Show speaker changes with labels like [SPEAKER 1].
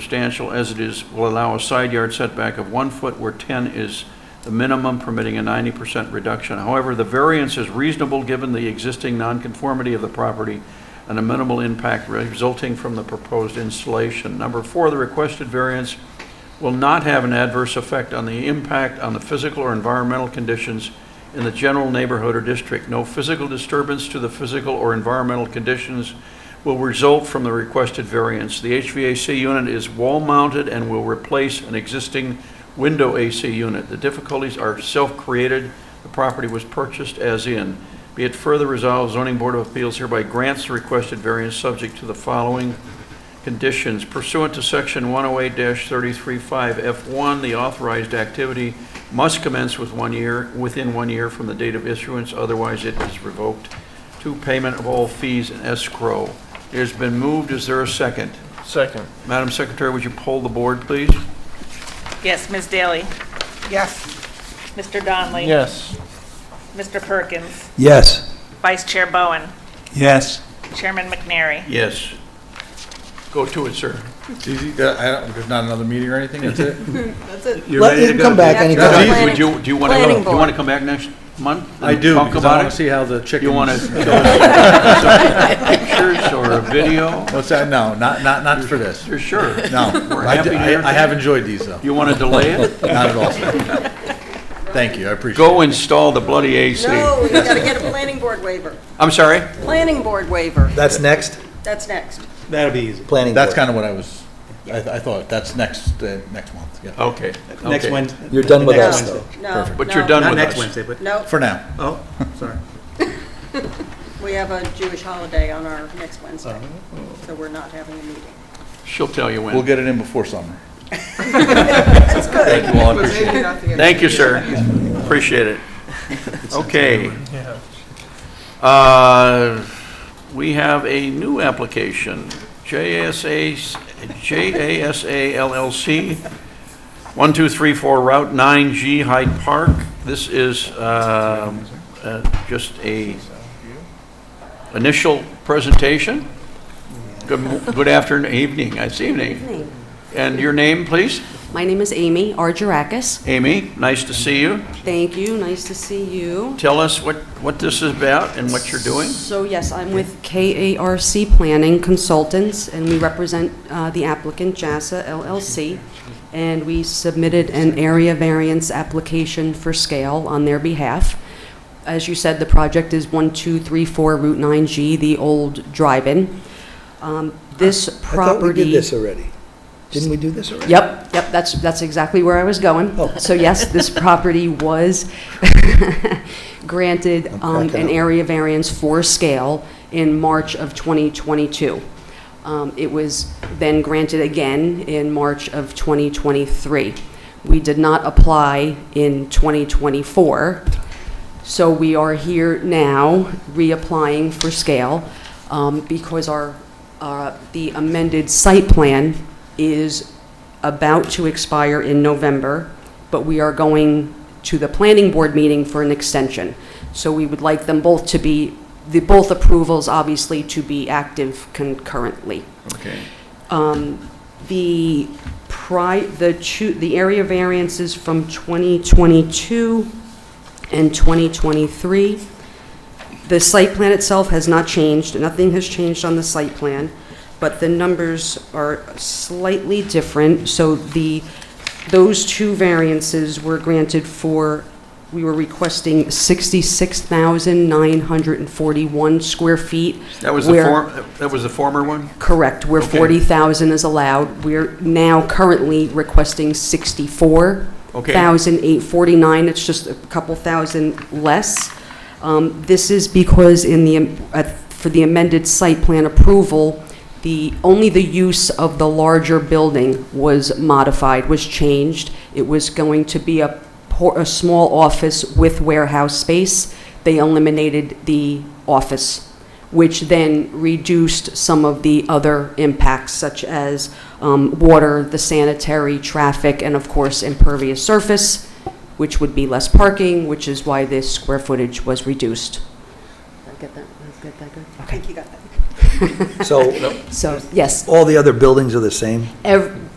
[SPEAKER 1] substantial as it is, will allow a side yard setback of one foot where 10 is the minimum, permitting a 90% reduction. However, the variance is reasonable given the existing nonconformity of the property and a minimal impact resulting from the proposed installation. Number four, the requested variance will not have an adverse effect on the impact on the physical or environmental conditions in the general neighborhood or district. No physical disturbance to the physical or environmental conditions will result from the requested variance. The HVAC unit is wall-mounted and will replace an existing window AC unit. The difficulties are self-created. The property was purchased as in. Be it further resolved, zoning board of appeals hereby grants the requested variance subject to the following conditions pursuant to section 108-335F1, the authorized activity must commence with one year, within one year from the date of issuance, otherwise it is revoked. Two, payment of all fees and escrow. It has been moved, is there a second?
[SPEAKER 2] Second.
[SPEAKER 1] Madam Secretary, would you poll the board, please?
[SPEAKER 3] Yes, Ms. Daly.
[SPEAKER 2] Yes.
[SPEAKER 3] Mr. Donley.
[SPEAKER 2] Yes.
[SPEAKER 3] Mr. Perkins.
[SPEAKER 4] Yes.
[SPEAKER 3] Vice Chair Bowen.
[SPEAKER 4] Yes.
[SPEAKER 3] Chairman McNary.
[SPEAKER 1] Yes. Go to it, sir.
[SPEAKER 5] Easy, Uh, I don't, there's not another meeting or anything, that's it?
[SPEAKER 4] Let him come back anytime.
[SPEAKER 5] Yeah.
[SPEAKER 1] Would you, do you want to,
[SPEAKER 6] Planning
[SPEAKER 1] you
[SPEAKER 6] board.
[SPEAKER 1] want to come back next month? and
[SPEAKER 5] I do,
[SPEAKER 1] Talk
[SPEAKER 5] because I
[SPEAKER 1] about
[SPEAKER 5] wanna
[SPEAKER 1] it?
[SPEAKER 5] see how the chickens.
[SPEAKER 1] You want to pictures or a video?
[SPEAKER 5] What's that, no, not, not, not for this,
[SPEAKER 1] You're sure?
[SPEAKER 5] no.
[SPEAKER 1] We're
[SPEAKER 5] I
[SPEAKER 1] happy
[SPEAKER 5] d-
[SPEAKER 1] to
[SPEAKER 5] I
[SPEAKER 1] hear
[SPEAKER 5] I have enjoyed these, though,
[SPEAKER 1] You want to delay it?
[SPEAKER 5] not at all. Thank you, I appreciate it.
[SPEAKER 1] Go install the bloody AC.
[SPEAKER 6] No, we gotta get a planning board waiver.
[SPEAKER 1] I'm sorry?
[SPEAKER 6] Planning board waiver,
[SPEAKER 4] That's next?
[SPEAKER 6] that's next.
[SPEAKER 4] That'll be easy. Planning
[SPEAKER 5] That's
[SPEAKER 4] board.
[SPEAKER 5] kind of what I was, I, I thought, that's next, uh, next month, yeah,
[SPEAKER 1] Okay. okay.
[SPEAKER 7] Wednesday.
[SPEAKER 4] You're done with
[SPEAKER 7] Next
[SPEAKER 4] us,
[SPEAKER 7] Wednesday.
[SPEAKER 4] though.
[SPEAKER 6] No,
[SPEAKER 5] Perfect.
[SPEAKER 1] But you're
[SPEAKER 6] no,
[SPEAKER 1] done
[SPEAKER 7] Not
[SPEAKER 1] with
[SPEAKER 7] next
[SPEAKER 1] us.
[SPEAKER 7] Wednesday, but,
[SPEAKER 6] No,
[SPEAKER 5] for now.
[SPEAKER 7] oh, sorry.
[SPEAKER 6] we have a Jewish holiday on our next Wednesday, so we're not having a meeting.
[SPEAKER 1] She'll tell you
[SPEAKER 5] We'll
[SPEAKER 1] when.
[SPEAKER 5] get it in before summer.
[SPEAKER 1] Thank you all. Appreciate it. Thank you, sir. Appreciate it. Okay. Uh, We have a new application, JSA, JASA LLC, 1234 Route 9G Hyde Park. This is um, uh, just a initial presentation. Good mo- good afternoon, evening, it's evening.
[SPEAKER 8] name?
[SPEAKER 1] And your name, please?
[SPEAKER 8] My name is Amy Argerakis.
[SPEAKER 1] Amy, nice to see you.
[SPEAKER 8] Thank you, nice to see you.
[SPEAKER 1] Tell us what, what this is about and what you're doing.
[SPEAKER 8] So yes, I'm with KARC Planning Consultants, and we represent uh, the applicant, JASA LLC, and we submitted an area variance application for scale on their behalf. As you said, the project is 1234 Route 9G, the old drive-in. Um, This
[SPEAKER 4] I thought we
[SPEAKER 8] property...
[SPEAKER 4] did this already. Didn't we do this already?
[SPEAKER 8] Yep, yep, that's, that's exactly where I was going.
[SPEAKER 4] Oh.
[SPEAKER 8] So yes, this property was granted
[SPEAKER 4] I'm
[SPEAKER 8] um,
[SPEAKER 4] cracking up.
[SPEAKER 8] an area variance for scale in March of 2022. Um, It was then granted again in March of 2023. We did not apply in 2024, so we are here now reapplying for scale um, because our, uh, the amended site plan is about to expire in November, but we are going to the planning board meeting for an extension. So we would like them both to be, the both approvals obviously to be active concurrently.
[SPEAKER 1] Okay.
[SPEAKER 8] Um, The pri, the chu, the area variances from 2022 and 2023. The site plan itself has not changed, nothing has changed on the site plan, but the numbers are slightly different. So the, those two variances were granted for, we were requesting 66,941 square feet.
[SPEAKER 1] That was the
[SPEAKER 8] where-
[SPEAKER 1] form, that was the former one?
[SPEAKER 8] Correct, where
[SPEAKER 1] Okay.
[SPEAKER 8] 40,000 is allowed, we're now currently requesting 64,849. It's just a couple thousand less. Um, This is because in the, uh, for the amended site plan approval, the, only the use of the larger building was modified, was changed. It was going to be a, por- a small office with warehouse space. They eliminated the office which then reduced some of the other impacts such as um, water, the sanitary, traffic, and of course impervious surface, which would be less parking, which is why this square footage was
[SPEAKER 6] I
[SPEAKER 8] reduced.
[SPEAKER 6] think you got that.
[SPEAKER 4] So
[SPEAKER 8] So, yes,
[SPEAKER 4] all the other buildings are the same?
[SPEAKER 8] ev-